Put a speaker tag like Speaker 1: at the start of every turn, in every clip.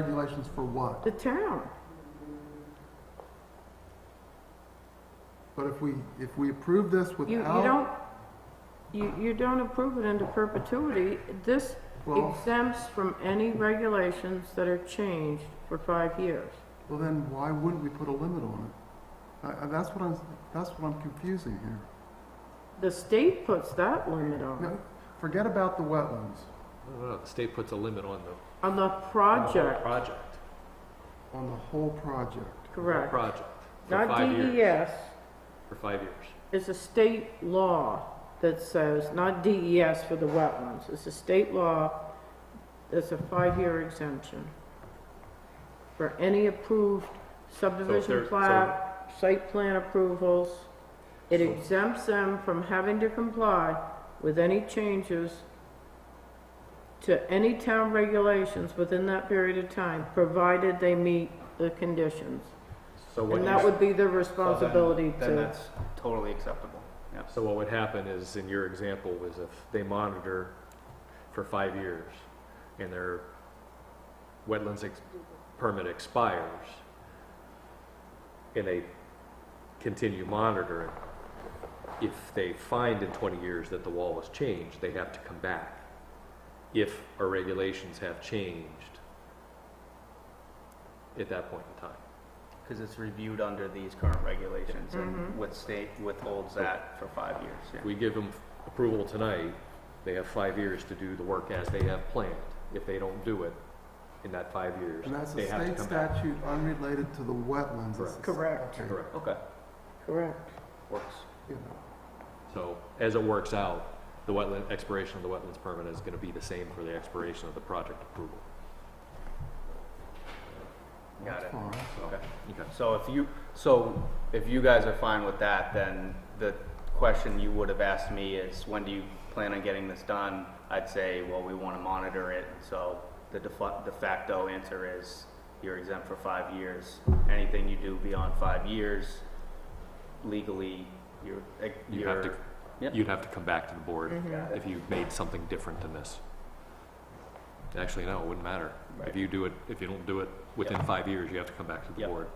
Speaker 1: Regulations for what?
Speaker 2: The town.
Speaker 1: But if we, if we approve this
Speaker 2: You, you
Speaker 1: without,
Speaker 2: don't, you, you don't approve it into perpetuity. This
Speaker 1: Well-
Speaker 2: exempts from any regulations that are changed for five years.
Speaker 1: well then why wouldn't we put a limit on it? I, I, that's what I'm, that's what I'm confusing here.
Speaker 2: The state puts that limit on,
Speaker 1: No,
Speaker 2: it.
Speaker 1: Forget about the wetlands,
Speaker 3: No, no, the state puts a limit on the
Speaker 2: on the
Speaker 3: on the whole
Speaker 2: project,
Speaker 3: Project.
Speaker 1: on the whole project.
Speaker 2: correct.
Speaker 3: Project. For
Speaker 2: Not E
Speaker 3: five years.
Speaker 2: DES,
Speaker 3: For five years.
Speaker 2: it's a state law that says, not DES for the wetlands, it's a state law, it's a five-year exemption for any approved subdivision
Speaker 3: there-
Speaker 2: plat, site plan approvals. It
Speaker 3: So-
Speaker 2: exempts them from having to comply with any changes to any town regulations within that period of time, provided they meet the conditions.
Speaker 4: So what
Speaker 2: And
Speaker 4: you-
Speaker 2: that would be their
Speaker 4: so then-
Speaker 2: responsibility
Speaker 4: Then
Speaker 2: to,
Speaker 4: that's totally acceptable, yes.
Speaker 3: So what would happen is, in your example, was if they monitor for five years and their wetlands ex- permit expires and they continue monitoring, if they find in twenty years that the wall was changed, they have to come back. If our regulations have changed at that point in time.
Speaker 4: Because it's reviewed under these current regulations
Speaker 2: Mhm.
Speaker 4: and what state withholds that for five years, yeah.
Speaker 3: If we give them approval tonight, they have five years to do the work as they have planned. If they don't do it in that five years,
Speaker 1: And that's
Speaker 3: they
Speaker 1: a
Speaker 3: have to
Speaker 1: state
Speaker 3: come back.
Speaker 1: statute unrelated to the wetlands. It's-
Speaker 2: Correct.
Speaker 1: okay,
Speaker 3: Correct.
Speaker 4: Okay,
Speaker 2: correct.
Speaker 4: works.
Speaker 1: yeah.
Speaker 3: So as it works out, the wetland, expiration of the wetlands permit is gonna be the same for the expiration of the project approval.
Speaker 4: Got it.
Speaker 1: Fine.
Speaker 4: Okay.
Speaker 3: Okay.
Speaker 4: So if you, so if you guys are fine with that, then the question you would have asked me is, when do you plan on getting this done? I'd say, well, we want to monitor it, so the defa- de facto answer is, you're exempt for five years. Anything you do beyond five years, legally, you're, eh,
Speaker 3: You have to,
Speaker 4: you're, Yep.
Speaker 3: you'd have to come back to the board
Speaker 4: Got it.
Speaker 3: if you made something different than this. Actually, no, it wouldn't matter. If
Speaker 4: Right.
Speaker 3: you do it, if you don't do it within five years, you have to come back to the
Speaker 4: Yep.
Speaker 3: board,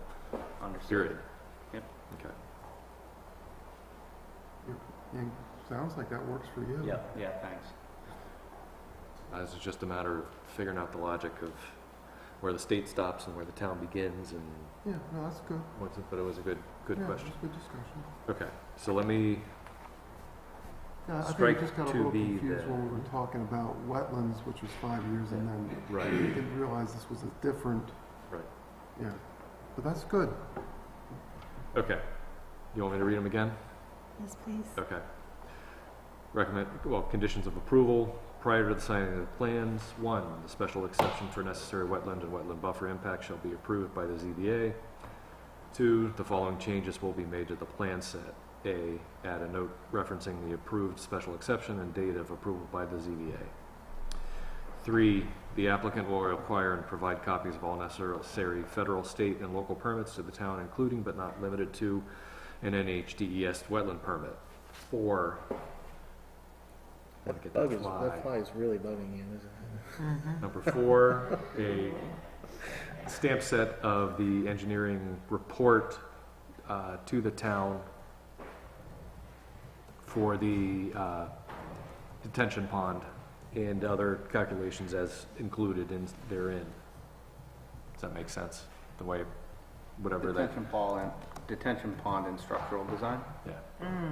Speaker 4: understood.
Speaker 3: period.
Speaker 4: Yep.
Speaker 3: Okay.
Speaker 1: Yeah, Sounds like that works for you.
Speaker 4: Yeah, yeah, thanks.
Speaker 3: It's Uh, just a matter of figuring out the logic of where the state stops and where the town begins and
Speaker 1: Yeah, no, that's good.
Speaker 3: what's it, but it was a good, good
Speaker 1: Yeah,
Speaker 3: question.
Speaker 1: it's Good discussion.
Speaker 3: Okay, so let me,
Speaker 1: Yeah, I think we
Speaker 3: Strike
Speaker 1: just got a
Speaker 3: to
Speaker 1: little
Speaker 3: be
Speaker 1: confused
Speaker 3: the-
Speaker 1: when we were talking about wetlands, which was five years, and then we
Speaker 3: right,
Speaker 1: didn't realize this was a different,
Speaker 3: right,
Speaker 1: yeah. But that's good.
Speaker 3: okay. You want me to read them again?
Speaker 5: Yes, please.
Speaker 3: Okay. Recommend, well, conditions of approval prior to the signing of the plans. One, the special exception for necessary wetland and wetland buffer impact shall be approved by the ZBA. Two, the following changes will be made to the plan set. A, add a note referencing the approved special exception and date of approval by the ZBA. Three, the applicant will require and provide copies of all necessary federal, state, and local permits to the town, including but not limited to an NHDES E wetland permit. Four. Wanna get that fly.
Speaker 6: is really bugging you, isn't
Speaker 3: Number four, a stamp set of the engineering report uh, to the town for the uh, detention pond and other calculations as included in therein. Does that make sense? The way, whatever that,
Speaker 4: Detention pond and, detention pond and structural design?
Speaker 3: yeah,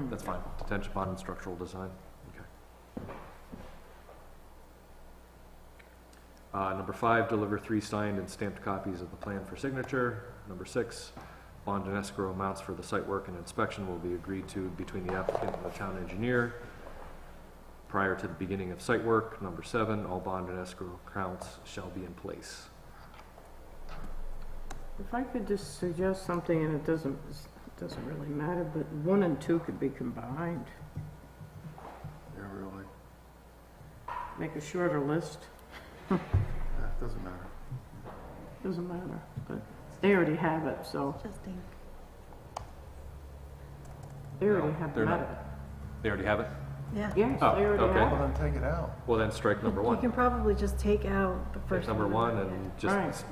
Speaker 3: that's fine. Detention pond and structural design, okay. Uh, number five, deliver three signed and stamped copies of the plan for signature. Number six, bond and escrow amounts for the site work and inspection will be agreed to between the applicant and the town engineer prior to the beginning of site work. Number seven, all bond and escrow accounts shall be in place.
Speaker 2: If I could just suggest something, and it doesn't, it doesn't really matter, but one and two could be combined.
Speaker 1: Yeah, really.
Speaker 2: Make a shorter list,
Speaker 1: Yeah, it doesn't matter.
Speaker 2: doesn't matter, but they already have it, so
Speaker 5: Just think.
Speaker 2: they already
Speaker 3: No,
Speaker 2: have
Speaker 3: they're not.
Speaker 2: met it.
Speaker 3: They already have it?
Speaker 5: Yeah.
Speaker 2: Yes, they
Speaker 3: Oh,
Speaker 2: already
Speaker 3: okay.
Speaker 2: have
Speaker 1: Well, then take it out.
Speaker 3: Well, then strike number
Speaker 5: You can
Speaker 3: one.
Speaker 5: probably just take out the
Speaker 3: Take
Speaker 5: first.
Speaker 3: number
Speaker 5: one.
Speaker 3: one
Speaker 5: Yeah.
Speaker 3: and just
Speaker 2: Right.
Speaker 3: s-